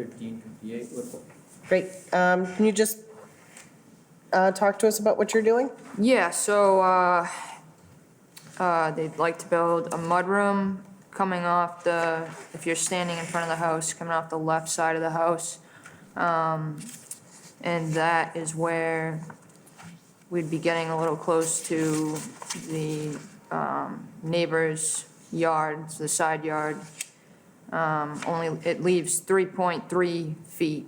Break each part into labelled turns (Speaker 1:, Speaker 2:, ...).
Speaker 1: fifteen fifty-eight Woodville.
Speaker 2: Great. Um, Can you just uh, talk to us about what you're doing?
Speaker 3: Yeah, so, uh, uh, they'd like to build a mudroom coming off the, if you're standing in front of the house, coming off the left side of the house. Um, and that is where we'd be getting a little close to the, um, neighbor's yards, the side yard. Um, only, it leaves three point three feet,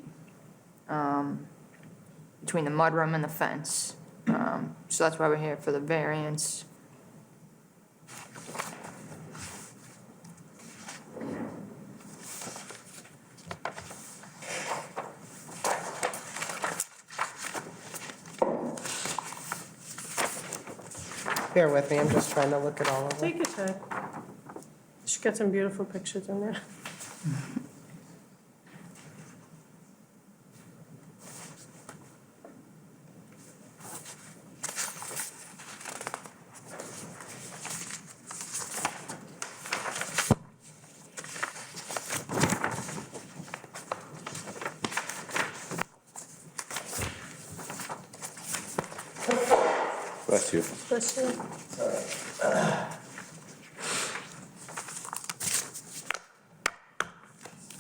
Speaker 3: um, between the mudroom and the fence. Um, So that's why we're here for the variance.
Speaker 2: Bear with me, I'm just trying to look at all of them.
Speaker 4: Take your time. She got some beautiful pictures in there.
Speaker 5: Bless you.
Speaker 4: Bless you.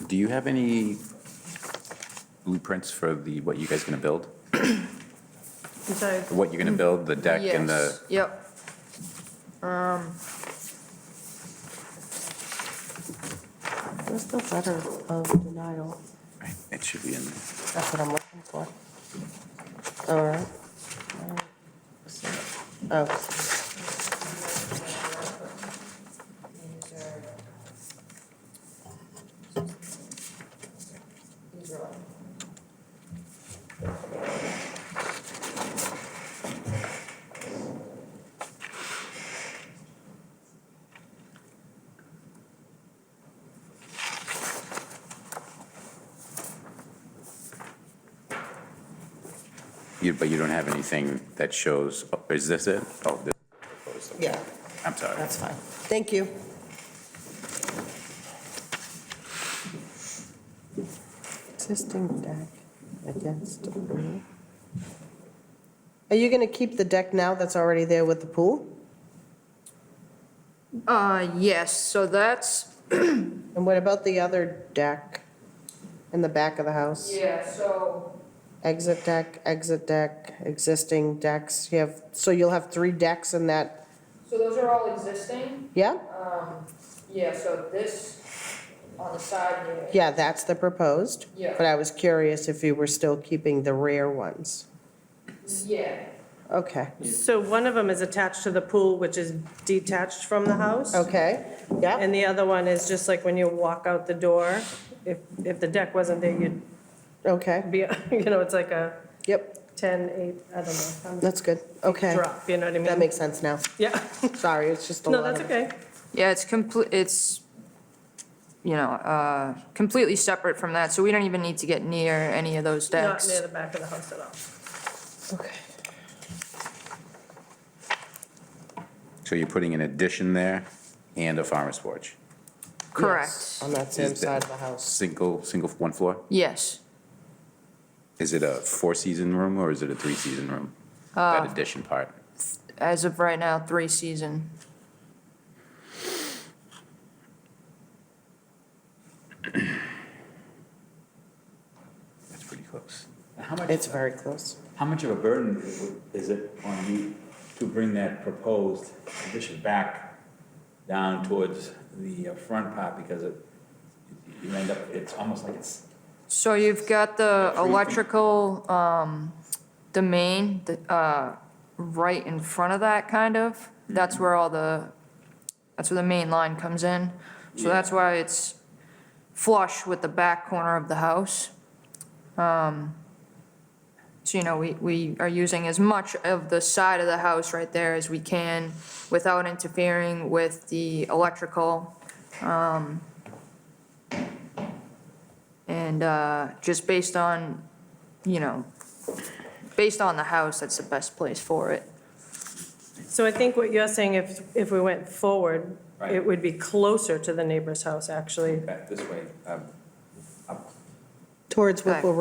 Speaker 5: Do you have any blueprints for the, what you guys gonna build?
Speaker 4: I'm sorry.
Speaker 5: What you're gonna build, the deck and the,
Speaker 3: Yes, Yep. Um,
Speaker 2: Where's the letter of denial?
Speaker 5: it should be in there.
Speaker 2: That's what I'm looking for. All right. Oh,
Speaker 5: You- But you don't have anything that shows, oh, is this it? Oh, this,
Speaker 2: yeah,
Speaker 5: I'm sorry.
Speaker 2: that's fine. Thank you. Existing deck against the pool. Are you going to keep the deck now that's already there with the pool?
Speaker 3: uh, yes, so that's.
Speaker 2: And what about the other deck in the back of the house?
Speaker 3: Yeah, so.
Speaker 2: Exit deck, exit deck, existing decks, you have, so you'll have three decks in that,
Speaker 3: So those are all existing,
Speaker 2: yeah?
Speaker 3: um, yeah, so this on the side here.
Speaker 2: Yeah, that's the proposed.
Speaker 3: Yeah.
Speaker 2: But I was curious if you were still keeping the rear ones.
Speaker 3: Yeah,
Speaker 2: Okay,
Speaker 4: So one of them is attached to the pool, which is detached from the house.
Speaker 2: okay, yeah,
Speaker 4: And the other one is just like when you walk out the door, if, if the deck wasn't there, you'd
Speaker 2: okay,
Speaker 4: be, you know, it's like a
Speaker 2: yep,
Speaker 4: 10, 8, I don't know,
Speaker 2: that's good, okay.
Speaker 4: drop, you know what I mean?
Speaker 2: That makes sense now.
Speaker 4: Yeah,
Speaker 2: Sorry, it's just a lot
Speaker 4: no,
Speaker 2: of.
Speaker 4: that's okay.
Speaker 3: yeah, it's complete, it's, you know, uh, completely separate from that, so we don't even need to get near any of those
Speaker 4: Not
Speaker 3: decks.
Speaker 4: near the back of the house at all.
Speaker 2: Okay.
Speaker 5: So you're putting an addition there and a farmer's porch?
Speaker 2: Yes,
Speaker 3: Correct,
Speaker 2: On that same
Speaker 5: Is
Speaker 2: side
Speaker 5: that-
Speaker 2: of the house.
Speaker 5: Single, single, one floor?
Speaker 3: yes,
Speaker 5: Is it a four-season room or is it a three-season room? That addition part?
Speaker 3: as of right now, three season.
Speaker 5: That's pretty close.
Speaker 1: How much,
Speaker 2: It's very close.
Speaker 1: how much of a burden it would- is it on you to bring that proposed addition back down towards the uh, front part because it, you end up, it's almost like it's
Speaker 3: So you've got the
Speaker 1: Three feet.
Speaker 3: electrical, um, the main, the, uh, right in front of that kind of. That's where all the, that's where the main line comes in. So that's why it's flush with the back corner of the house. Um, so you know, we, we are using as much of the side of the house right there as we can without interfering with the electrical. And uh, just based on, you know, based on the house, that's the best place for it.
Speaker 4: So I think what you're saying, if, if we went forward,
Speaker 1: Right.
Speaker 4: it
Speaker 1: uh,
Speaker 4: would be closer to the neighbor's house, actually.
Speaker 1: back this way, um, up
Speaker 6: towards Whipple
Speaker 2: Right.